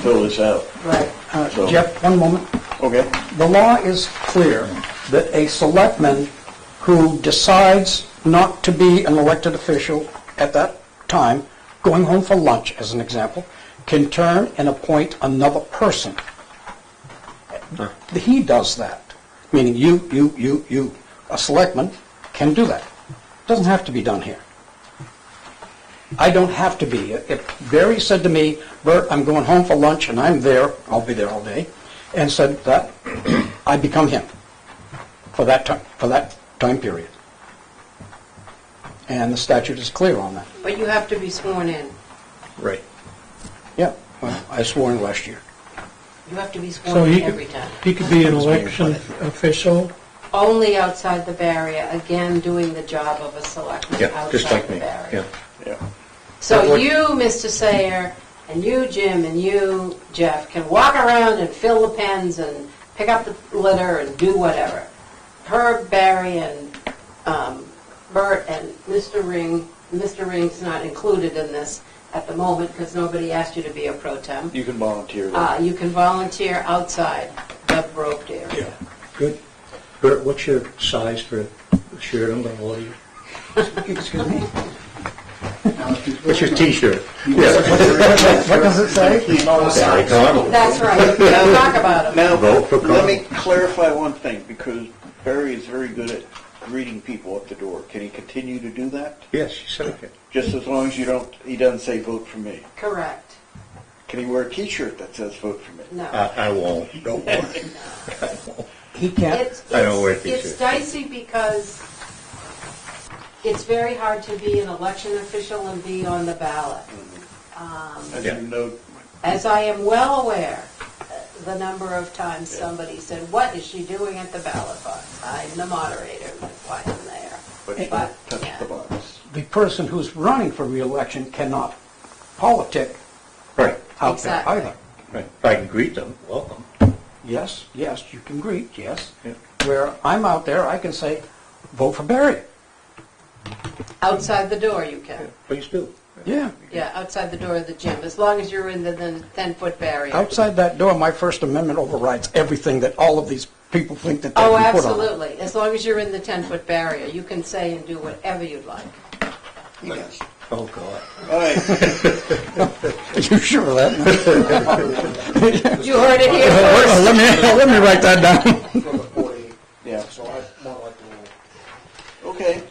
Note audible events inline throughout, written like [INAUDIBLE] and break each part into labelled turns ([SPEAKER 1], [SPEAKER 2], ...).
[SPEAKER 1] fill this out.
[SPEAKER 2] Right.
[SPEAKER 3] Uh,
[SPEAKER 1] So-
[SPEAKER 3] Jeff, one moment.
[SPEAKER 1] Okay.
[SPEAKER 3] The law is clear that a selectman who decides not to be an elected official at that time, going home for lunch as an example, can turn and appoint another person. He does that, meaning you, you, you, you, a selectman can do that. Doesn't have to be done here. I don't have to be. If Barry said to me, Bert, I'm going home for lunch and I'm there, I'll be there all day, and said that, I become him for that time, for that time period. And the statute is clear on that.
[SPEAKER 2] But you have to be sworn in.
[SPEAKER 4] Right.
[SPEAKER 3] Yeah, well, I swore in last year.
[SPEAKER 2] You have to be
[SPEAKER 5] So
[SPEAKER 2] sworn
[SPEAKER 5] he
[SPEAKER 2] in
[SPEAKER 5] could,
[SPEAKER 2] every time.
[SPEAKER 5] he could be an election official,
[SPEAKER 2] Only outside the barrier, again, doing the job of a selectman
[SPEAKER 4] Yeah, just
[SPEAKER 2] outside
[SPEAKER 4] like
[SPEAKER 2] the
[SPEAKER 4] me,
[SPEAKER 2] barrier.
[SPEAKER 4] yeah.
[SPEAKER 1] Yeah.
[SPEAKER 2] So you, Mr. Sayer, and you, Jim, and you, Jeff, can walk around and fill the pens and pick up the litter and do whatever. Herb, Barry, and um, Bert, and Mr. Ring, Mr. Ring's not included in this at the moment because nobody asked you to be a pro temp.
[SPEAKER 1] You can volunteer
[SPEAKER 2] Uh,
[SPEAKER 1] that.
[SPEAKER 2] You can volunteer outside the roped area.
[SPEAKER 4] Good. Bert, what's your size for a shirt? I'm gonna order you.
[SPEAKER 3] Excuse me?
[SPEAKER 4] What's your t-shirt?
[SPEAKER 3] What does it say?
[SPEAKER 4] Barry Connell.
[SPEAKER 2] That's
[SPEAKER 1] [LAUGHS]
[SPEAKER 2] right, Now talk about them.
[SPEAKER 1] Now,
[SPEAKER 4] Vote for
[SPEAKER 1] let me
[SPEAKER 4] Congress.
[SPEAKER 1] clarify one thing, because Barry is very good at greeting people at the door. Can he continue to do that?
[SPEAKER 4] Yes, you said it.
[SPEAKER 1] Just as long as you don't, he doesn't say vote for me.
[SPEAKER 2] Correct,
[SPEAKER 1] Can he wear a t-shirt that says vote for me?
[SPEAKER 2] no.
[SPEAKER 4] I, I won't. Don't worry.
[SPEAKER 3] He can't,
[SPEAKER 2] It's-
[SPEAKER 4] I don't wear
[SPEAKER 2] it's- It's
[SPEAKER 4] t-shirts.
[SPEAKER 2] dicey because it's very hard to be an election official and be on the ballot.
[SPEAKER 1] Mm. As
[SPEAKER 4] Yeah.
[SPEAKER 1] you know,
[SPEAKER 2] As I am well aware, uh, the number of times somebody said, what is she doing at the ballot box? I'm the moderator, that's why I'm there.
[SPEAKER 1] but you
[SPEAKER 2] But,
[SPEAKER 1] don't touch
[SPEAKER 2] yeah.
[SPEAKER 1] the box.
[SPEAKER 3] the person who's running for reelection cannot politic
[SPEAKER 4] Right,
[SPEAKER 3] out there
[SPEAKER 2] Exactly.
[SPEAKER 3] either.
[SPEAKER 4] right. If I can greet them, welcome.
[SPEAKER 3] Yes, yes, you can greet, yes.
[SPEAKER 4] Yeah.
[SPEAKER 3] Where I'm out there, I can say, vote for Barry.
[SPEAKER 2] Outside the door you can.
[SPEAKER 4] Please do.
[SPEAKER 3] Yeah.
[SPEAKER 2] Yeah, outside the door of the gym, as long as you're in the then 10-foot barrier.
[SPEAKER 3] Outside that door, my First Amendment overrides everything that all of these people think that they
[SPEAKER 2] Oh,
[SPEAKER 3] can put on.
[SPEAKER 2] absolutely, as long as you're in the 10-foot barrier, you can say and do whatever you'd like.
[SPEAKER 1] Yes.
[SPEAKER 4] Oh, God.
[SPEAKER 1] All right,
[SPEAKER 3] [LAUGHS] You sure of that?
[SPEAKER 2] You heard it here first.
[SPEAKER 3] [LAUGHS] Let me, let me write that down.
[SPEAKER 6] from the 40,
[SPEAKER 1] yeah,
[SPEAKER 6] so I more like the little
[SPEAKER 1] okay.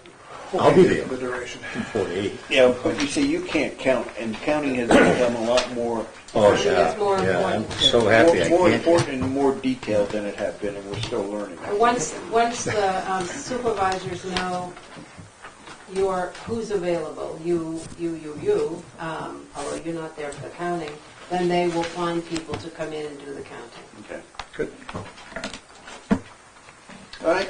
[SPEAKER 4] I'll be there.
[SPEAKER 6] the duration.
[SPEAKER 4] Forty-eight.
[SPEAKER 1] Yeah, but you see, you can't count, and counting has become a lot more,
[SPEAKER 4] Oh,
[SPEAKER 2] It's
[SPEAKER 4] yeah,
[SPEAKER 2] more
[SPEAKER 4] yeah. I'm
[SPEAKER 2] important.
[SPEAKER 4] so happy I
[SPEAKER 1] more more
[SPEAKER 4] can't.
[SPEAKER 1] important and more detailed than it had been, and we're still learning.
[SPEAKER 2] Once, once the um, supervisors know your, who's available, you, you, you, you, um, although you're not there for the counting, then they will find people to come in and do the counting.
[SPEAKER 1] Okay.
[SPEAKER 4] Good.
[SPEAKER 1] All right,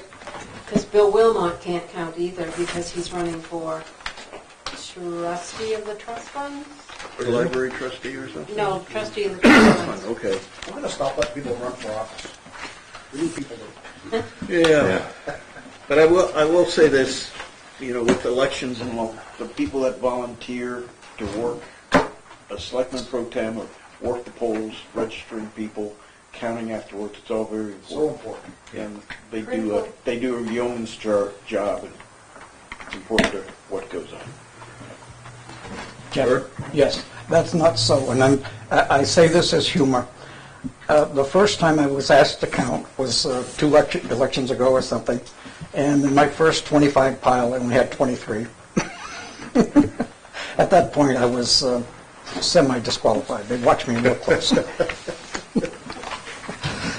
[SPEAKER 2] Because Bill Wilmot can't count either, because he's running for trustee of the trust fund?
[SPEAKER 1] or library trustee or something?
[SPEAKER 2] No, trustee of the trust fund.
[SPEAKER 1] Okay.
[SPEAKER 6] We're gonna stop letting people run for office. We need people to,
[SPEAKER 1] Yeah,
[SPEAKER 4] Yeah.
[SPEAKER 1] but I will, I will say this, you know, with elections and all, the people that volunteer to work, a selectman pro tem or work the polls, registering people, counting afterwards, it's all very
[SPEAKER 6] so
[SPEAKER 1] important.
[SPEAKER 6] important.
[SPEAKER 1] And they do, a- they do a yeoman's jar, job and it's important to what goes on.
[SPEAKER 3] Jeff, Yes, that's not so, and I'm, I I say this as humor. Uh, The first time I was asked to count was uh, two elec- elections ago or something, and in my first 25 pile, I only had 23. [LAUGHS] At that point, I was uh, semi-disqualified. They watched me real close.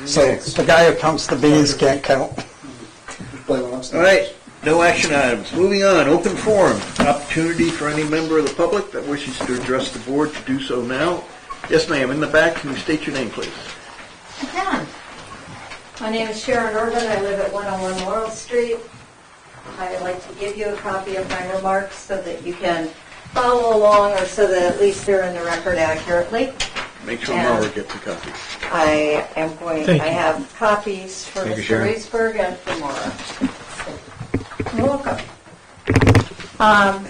[SPEAKER 3] So the guy who counts the beans can't count.
[SPEAKER 6] Play what I'm saying.
[SPEAKER 1] All right, no action items. Moving on, open forum, opportunity for any member of the public that wishes to address the board to do so now. Yes, ma'am, in the back, can you state your name, please?
[SPEAKER 7] I can. My name is Sharon Irvin, I live at 101 Laurel Street. I'd like to give you a copy of my remarks so that you can follow along, or so that at least they're in the record accurately.
[SPEAKER 1] Make sure Laura gets a copy.
[SPEAKER 7] I am going, I
[SPEAKER 5] Thank you.
[SPEAKER 7] have copies for
[SPEAKER 4] Thank you,
[SPEAKER 7] Mr.
[SPEAKER 4] Sharon.
[SPEAKER 7] Reesberg and for Maura. You're welcome. Um,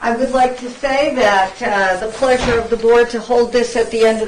[SPEAKER 7] I would like to say that uh, the pleasure of the board to hold this at the end of